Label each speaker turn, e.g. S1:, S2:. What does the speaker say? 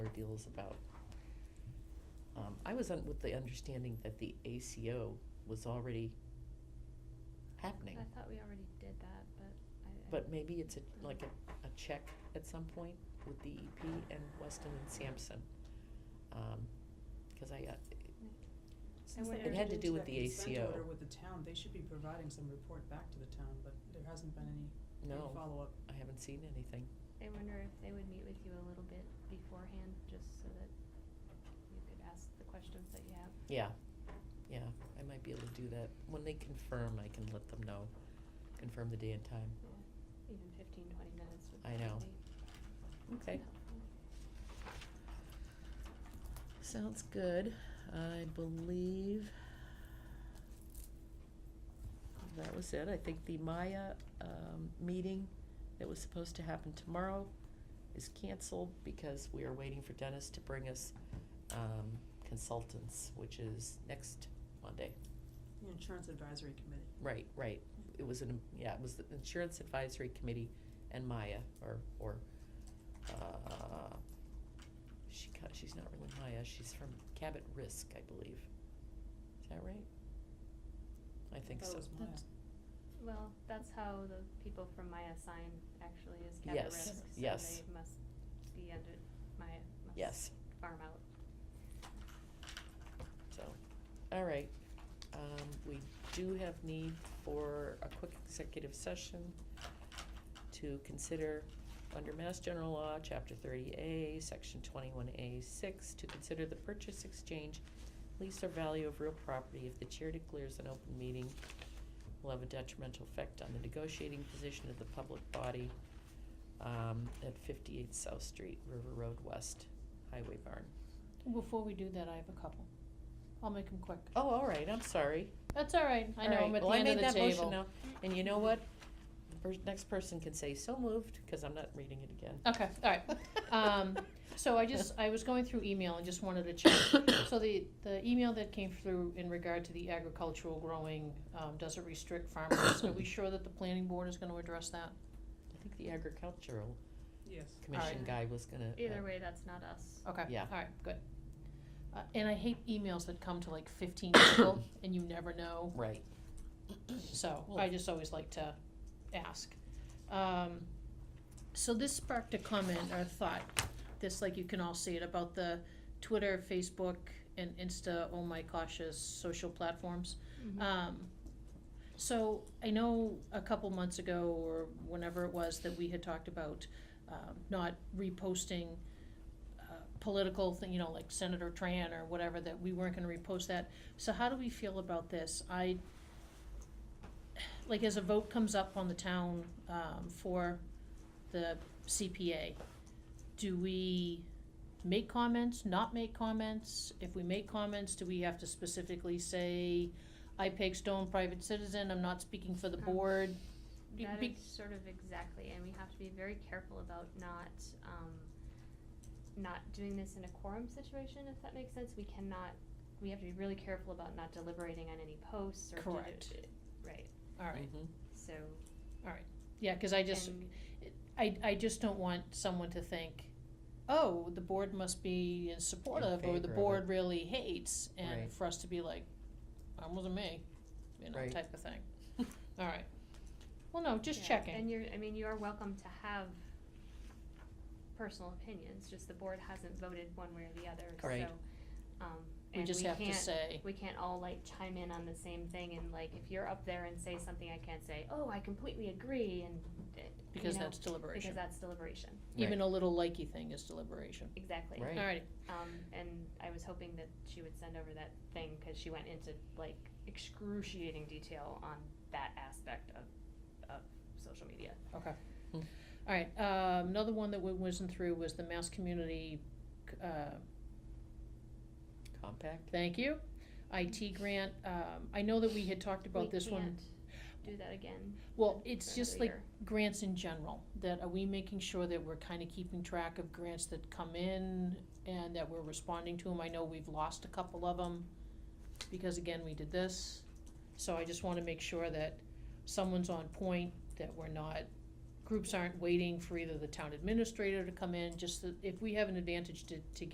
S1: feels about. Um, I was un- with the understanding that the ACO was already happening,
S2: I thought we already did that, but I. I-
S1: but maybe it's a, like a, a check at some point with the EP and Weston and Sampson. Um 'cause cause I, uh,
S3: Since they
S2: wonder-
S3: entered
S2: It had to
S3: into
S1: do
S3: that
S1: with the
S3: consent
S1: ACO.
S3: order with the town, they should be providing some report back to the town, but there hasn't been any, any
S1: No.
S3: follow-up.
S1: I haven't seen anything.
S2: I wonder if they would meet with you a little bit beforehand, just so that you could ask the questions that you have.
S1: Yeah, yeah, I might be able to do that. When they confirm, I can let them know, confirm the day and time.
S2: Even fifteen, twenty minutes would
S1: I
S2: probably be
S1: know. Okay,
S2: helpful.
S1: sounds good. I believe that was it. I think the Maya, um, meeting that was supposed to happen tomorrow is canceled because we are waiting for Dennis to bring us, um, consultants, which is next Monday.
S3: The Insurance Advisory Committee.
S1: Right, right. It was an, yeah, it was the Insurance Advisory Committee and Maya, or, or, uh, she, ca- she's not really Maya, she's from Cabot Risk, I believe. Is that right? I think so.
S3: thought it was Maya.
S2: That's- Well, that's how the people from Maya sign actually is Cabot
S1: Yes,
S2: Risk, so
S1: yes.
S2: they must be under, Maya
S1: Yes,
S2: must farm out.
S1: so, all right. Um, we do have need for a quick executive session to consider, under Mass General Law, Chapter thirty A, Section twenty-one A six, to consider the purchase, exchange, lease or value of real property if the chair declares an open meeting will have a detrimental effect on the negotiating position of the public body um, at fifty-eight South Street, River Road West, Highway Barn.
S4: Before we do that, I have a couple. I'll make them quick.
S1: Oh, all right, I'm sorry.
S4: That's all right. I know
S1: All
S4: I'm
S1: right,
S4: at the
S1: well, I
S4: end of
S1: made
S4: the
S1: that motion
S4: table.
S1: now, and you know what? The pers- next person can say so moved, cause I'm not reading it again.
S4: Okay, all right. Um, so I just, I was going through email and just wanted to check. So the, the email that came through in regard to the agricultural growing, um, does it restrict farmers? Are we sure that the planning board is gonna address that?
S1: I think the agricultural
S3: Yes.
S1: commission
S2: Alright.
S1: guy was gonna. uh,
S2: Either way, that's not us.
S4: Okay,
S1: Yeah.
S4: all right, good. Uh, and I hate emails that come to like fifteen people and you never know
S1: Right,
S4: So
S1: Well-
S4: I just always like to ask. Um, so this sparked a comment or a thought, this like you can all see it about the Twitter, Facebook, and Insta, oh my cautious social platforms.
S2: Mm-hmm.
S4: Um, so I know a couple months ago or whenever it was that we had talked about um, not reposting uh, political thing, you know, like Senator Tran or whatever, that we weren't going to repost that. So how do we feel about this? I like as a vote comes up on the town um, for the CPA, do we make comments? Not make comments? If we make comments, do we have to specifically say? I peg stone private citizen, I'm not speaking for the
S2: Um,
S4: board. Be-
S2: That
S4: be-
S2: is sort of exactly, and we have to be very careful about not, um, not doing this in a quorum situation, if that makes sense. We cannot, we have to be really careful about not deliberating on any posts or. do- do-
S4: Correct.
S2: Right,
S4: All right,
S1: mhm,
S2: so.
S4: yeah, cause I just,
S2: and-
S4: I, I just don't want someone to think, oh, the board must be supportive, or
S1: favor
S4: the
S1: of
S4: board really hates,
S1: Right.
S4: and for us to be like, that wasn't me, you know,
S1: Right.
S4: type of thing. All right. Well, no, just
S2: yeah,
S4: checking.
S2: And you're, I mean, you are welcome to have personal opinions, just the board hasn't voted one way or the other, so.
S1: Right.
S2: Um,
S4: We
S2: and
S4: just
S2: we
S4: have to
S2: can't-
S4: say,
S2: we can't all like chime in on the same thing and like if you're up there and say something i can't say oh i completely agree and uh,
S4: because
S2: you know,
S4: that's deliberation.
S2: because that's deliberation
S4: Even a little likey thing is deliberation.
S2: exactly
S1: Right.
S4: All righty,
S2: um, and i was hoping that she would send over that thing because she went into like excruciating detail on that aspect of, of social media
S4: okay.
S1: Hmm.
S4: All right, um, another one that we wasn't through was the Mass Community, uh,
S1: compact,
S4: thank you, IT grant. Um, I know that we had talked about
S2: We
S4: this one.
S2: can't do that again
S4: Well, it's
S2: for
S4: just
S2: another
S4: like grants in general, that are we making sure that we're kind of keeping track of grants that come in and that we're responding to them? I know we've lost a couple of them because again, we did this. So I just want to make sure that someone's on point, that we're not, groups aren't waiting for either the town administrator to come in, just that if we have an advantage to, to get